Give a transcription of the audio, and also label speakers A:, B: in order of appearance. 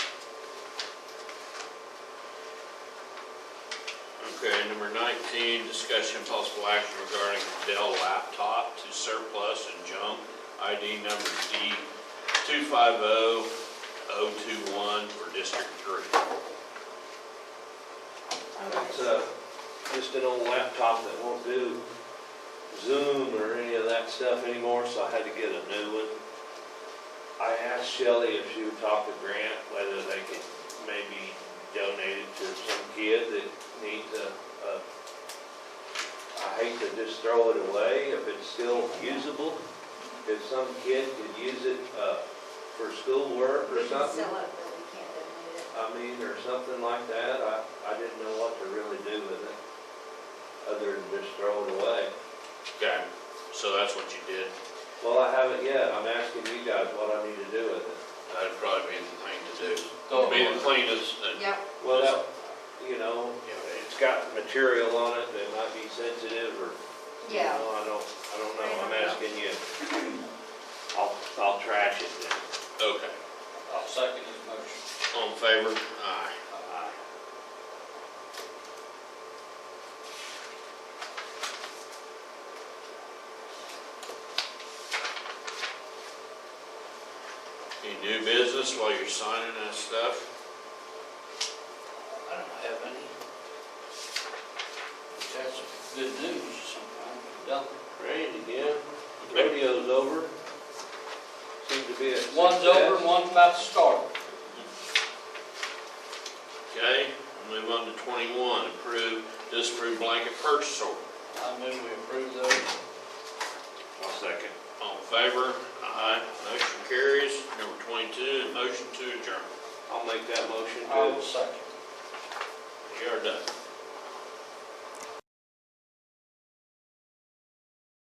A: Okay, number 19, discussion possible action regarding Dell laptop to surplus and junk, ID number D 250021 for District 3.
B: It's uh, just an old laptop that won't do Zoom or any of that stuff anymore, so I had to get a new one. I asked Shelley if she would talk to Grant whether they could maybe donate it to some kid that needs a, a, I hate to just throw it away if it's still usable. If some kid could use it, uh, for schoolwork
C: We
B: or
C: can
B: something.
C: sell it, but we can't donate it.
B: I mean, or something like that, I, I didn't know what to really do with it, other than just throw it away.
A: Okay, so that's what you did.
B: Well, I haven't yet, I'm asking you guys what I need to do with it.
A: That'd probably be the thing to do.
D: Go
A: Be the
D: on.
A: cleanest and,
C: Yep,
B: Well, that, you know, it's got material on it that might be sensitive, or, you
C: yeah.
B: know, I don't, I don't know, I'm asking you. I'll, I'll trash it then.
A: okay.
D: I'll second his motion.
A: All in favor? Aye. Any new business while you're signing that stuff?
D: I don't have any. That's good news sometimes, don't it?
B: Rain again, radio's over. Seems to be a success.
D: One's over and one's about to start.
A: Okay, move on to twenty-one, approve, disapprove blanket purchase order.
D: I move we approve those.
B: I'll second.
A: All in favor? Aye. Motion carries. Number twenty-two, motion to adjourn.
B: I'll make that motion
D: I will
B: too.
D: second.